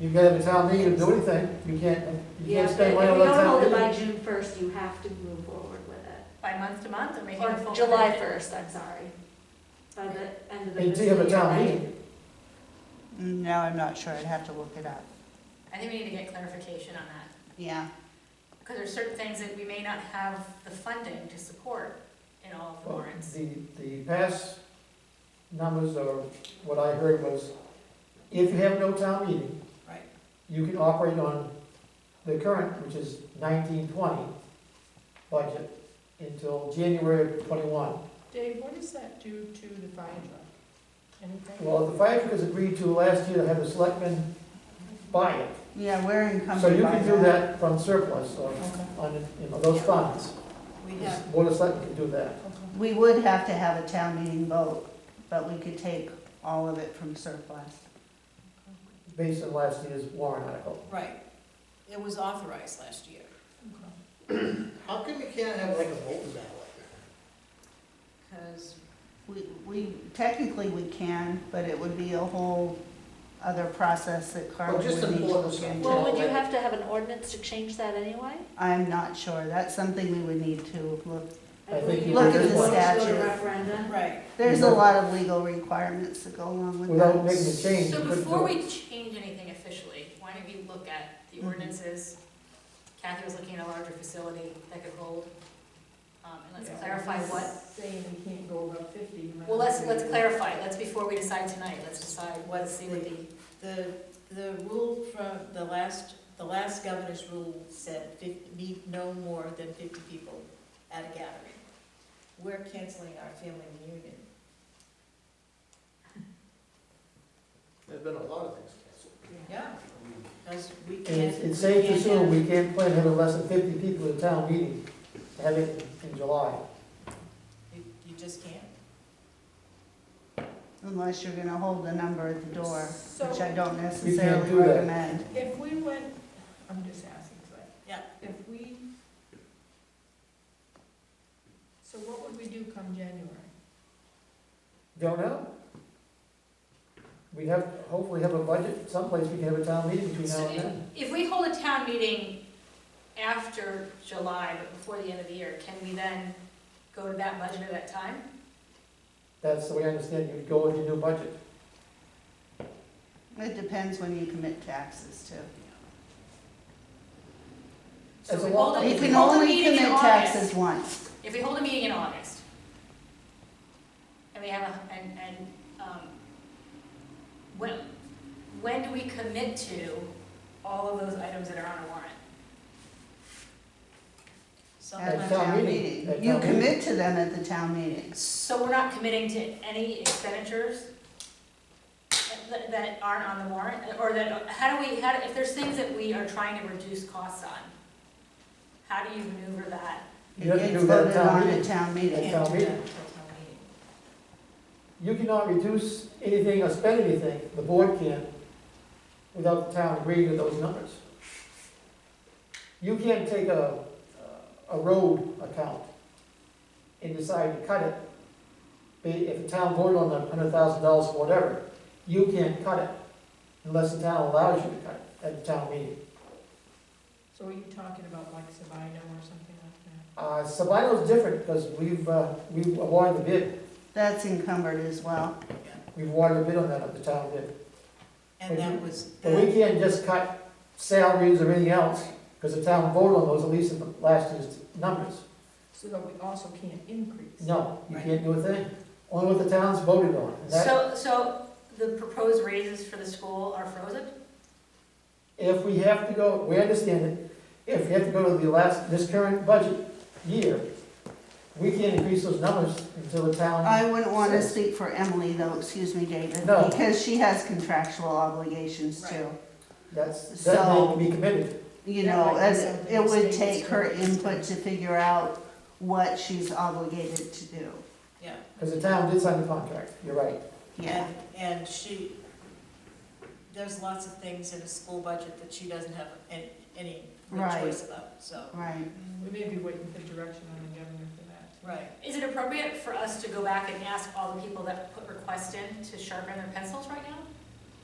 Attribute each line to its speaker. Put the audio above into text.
Speaker 1: You can have a town meeting to do anything, you can't, you
Speaker 2: Yeah,
Speaker 1: can't
Speaker 2: but
Speaker 1: stay
Speaker 2: if
Speaker 1: away
Speaker 2: we
Speaker 1: on that
Speaker 2: don't
Speaker 1: town
Speaker 2: hold it
Speaker 1: meeting.
Speaker 2: by June first, you have to move forward with it.
Speaker 3: by month to month or making a full.
Speaker 2: Or July first, I'm sorry. By the end of the
Speaker 1: Until you
Speaker 2: fiscal
Speaker 1: have a
Speaker 2: year,
Speaker 1: town
Speaker 2: right?
Speaker 1: meeting.
Speaker 4: Now I'm not sure, I'd have to look it up.
Speaker 3: I think we need to get clarification on that,
Speaker 4: Yeah,
Speaker 3: because there's certain things that we may not have the funding to support in all of the
Speaker 1: Well,
Speaker 3: warrants.
Speaker 1: The, the past numbers or what I heard was, if you have no town meeting.
Speaker 4: Right.
Speaker 1: You can operate on the current, which is nineteen twenty budget until January of twenty-one.
Speaker 5: Dave, what does that do to the fire truck? Anything?
Speaker 1: Well, the fire truck was agreed to last year to have the selectmen buy it.
Speaker 4: yeah, we're
Speaker 1: So
Speaker 4: encumbered
Speaker 1: you
Speaker 4: by
Speaker 1: can do that from surplus or
Speaker 5: Okay,
Speaker 1: on, you know, those funds.
Speaker 3: We
Speaker 1: The Board of Selectmen can do that.
Speaker 5: okay.
Speaker 4: We would have to have a town meeting vote, but we could take all of it from surplus.
Speaker 1: based on last year's warrant article.
Speaker 6: Right. It was authorized last year.
Speaker 7: How come you can't have like a vote ballot?
Speaker 6: Because
Speaker 4: We, we, technically we can, but it would be a whole other process that Carla
Speaker 7: Well, just
Speaker 4: would need to
Speaker 7: important
Speaker 4: look
Speaker 7: stuff.
Speaker 4: into.
Speaker 2: Well, would you have to have an ordinance to change that anyway?
Speaker 4: I'm not sure, that's something we would need to look.
Speaker 1: I think
Speaker 2: believe
Speaker 1: you Look
Speaker 2: you
Speaker 1: at
Speaker 2: would
Speaker 1: the
Speaker 2: want to go to
Speaker 4: statute.
Speaker 2: Referendum.
Speaker 6: Right.
Speaker 4: There's a lot of legal requirements that go along with that.
Speaker 1: Without making a change,
Speaker 3: So
Speaker 1: you couldn't
Speaker 3: before
Speaker 1: do it.
Speaker 3: we change anything officially, why don't we look at the
Speaker 5: Mm-hmm.
Speaker 4: Mhm.
Speaker 3: ordinances? Kathy was looking at a larger facility that could hold, um, and
Speaker 5: Yeah,
Speaker 3: let's clarify
Speaker 5: I'm
Speaker 3: what,
Speaker 5: Saying we can't go above fifty. you might
Speaker 3: well, let's,
Speaker 5: have to-
Speaker 3: let's clarify, let's, before we decide tonight, let's decide, let's see what the,
Speaker 6: The, the rule from the last, the last governor's rule said fif- need no more than fifty people at a gathering. We're canceling our family reunion.
Speaker 7: There's been a lot of things canceled.
Speaker 6: Yeah, because we
Speaker 1: And
Speaker 6: can't.
Speaker 1: it's- it's safe to
Speaker 6: we can't have-
Speaker 1: assume we can't plan to have less than fifty people at a town meeting, to have it in July.
Speaker 6: You you just can't.
Speaker 4: Unless you're gonna hold the number at the door, which I
Speaker 5: So
Speaker 4: don't necessarily
Speaker 1: do that.
Speaker 4: recommend.
Speaker 5: if we went, I'm just asking, but.
Speaker 6: Yeah.
Speaker 5: If we. So what would we do come January?
Speaker 1: Don't know. We have, hopefully have a budget, someplace we can have a town meeting between now and then.
Speaker 3: if we hold a town meeting after July, but before the end of the year, can we then go to that budget at that time?
Speaker 1: That's the way I understand it. you go with your new budget.
Speaker 4: It depends when you commit taxes too.
Speaker 3: So
Speaker 1: As
Speaker 3: we
Speaker 1: a
Speaker 3: hold
Speaker 1: law-
Speaker 3: a-
Speaker 4: You
Speaker 3: if we
Speaker 4: can
Speaker 3: hold a
Speaker 4: only
Speaker 3: meeting in
Speaker 4: commit
Speaker 3: August-
Speaker 4: taxes once.
Speaker 3: If we hold a meeting in August, and we have a, and, and, um, when, when do we commit to all of those items that are on a warrant?
Speaker 4: At
Speaker 1: At
Speaker 4: the
Speaker 6: Sometimes,
Speaker 1: town
Speaker 4: town
Speaker 1: meeting. At
Speaker 4: meeting.
Speaker 1: town
Speaker 4: You
Speaker 1: meeting.
Speaker 4: commit to them at the town meeting.
Speaker 3: So we're not committing to any expenditures that, that aren't on the warrant, or that, how do we, how, do- if there's things that we are trying to reduce costs on, how do you maneuver that?
Speaker 4: It
Speaker 1: You have to
Speaker 4: gets
Speaker 1: do that at
Speaker 4: voted
Speaker 1: town
Speaker 4: on at
Speaker 1: meeting.
Speaker 4: town
Speaker 6: we
Speaker 1: At
Speaker 4: meeting.
Speaker 1: town
Speaker 6: can't do that
Speaker 1: meeting.
Speaker 6: until town meeting.
Speaker 1: You cannot reduce anything or spend anything, the board can, without the town agreeing to those numbers. You can't take a, a road account and decide to cut it. Be- If the town voted on a hundred thousand dollars or whatever, you can't cut it unless the town allows you to cut it at the town meeting.
Speaker 5: So are you talking about like Sabino or something like that?
Speaker 1: Uh, Sabino's different because we've, uh, we've awarded the bid,
Speaker 4: That's encumbered as well.
Speaker 1: we've awarded the bid on that at the town bid.
Speaker 6: And that was,
Speaker 1: But we can't just cut salaries or anything else, because the town voted on those, at least in the last year's numbers.
Speaker 5: So that we also can't increase?
Speaker 1: No, you can't do a thing, only what the town's voted on. And that-
Speaker 3: So, so the proposed raises for the school are frozen?
Speaker 1: If we have to go, we understand it, if we have to go to the last, this current budget year, we can't increase those numbers until the town,
Speaker 4: I wouldn't want to speak for Emily though, excuse me, David,
Speaker 1: No.
Speaker 4: because she has contractual obligations too.
Speaker 1: that's, that they can be committed.
Speaker 4: You
Speaker 6: That
Speaker 4: know,
Speaker 6: might be
Speaker 4: and
Speaker 6: something
Speaker 4: it
Speaker 6: the
Speaker 4: would
Speaker 6: state
Speaker 4: take her
Speaker 6: is doing.
Speaker 4: input to figure out what she's obligated to do.
Speaker 6: yeah.
Speaker 1: Because the town did sign the contract, you're right.
Speaker 4: Yeah.
Speaker 6: And, and she, there's lots of things in a school budget that she doesn't have any, any real
Speaker 4: Right.
Speaker 6: choice about, so,
Speaker 4: Right.
Speaker 5: We may be waiting for direction on the governor for that.
Speaker 6: right.
Speaker 3: Is it appropriate for us to go back and ask all the people that put requests in to sharpen their pencils right now?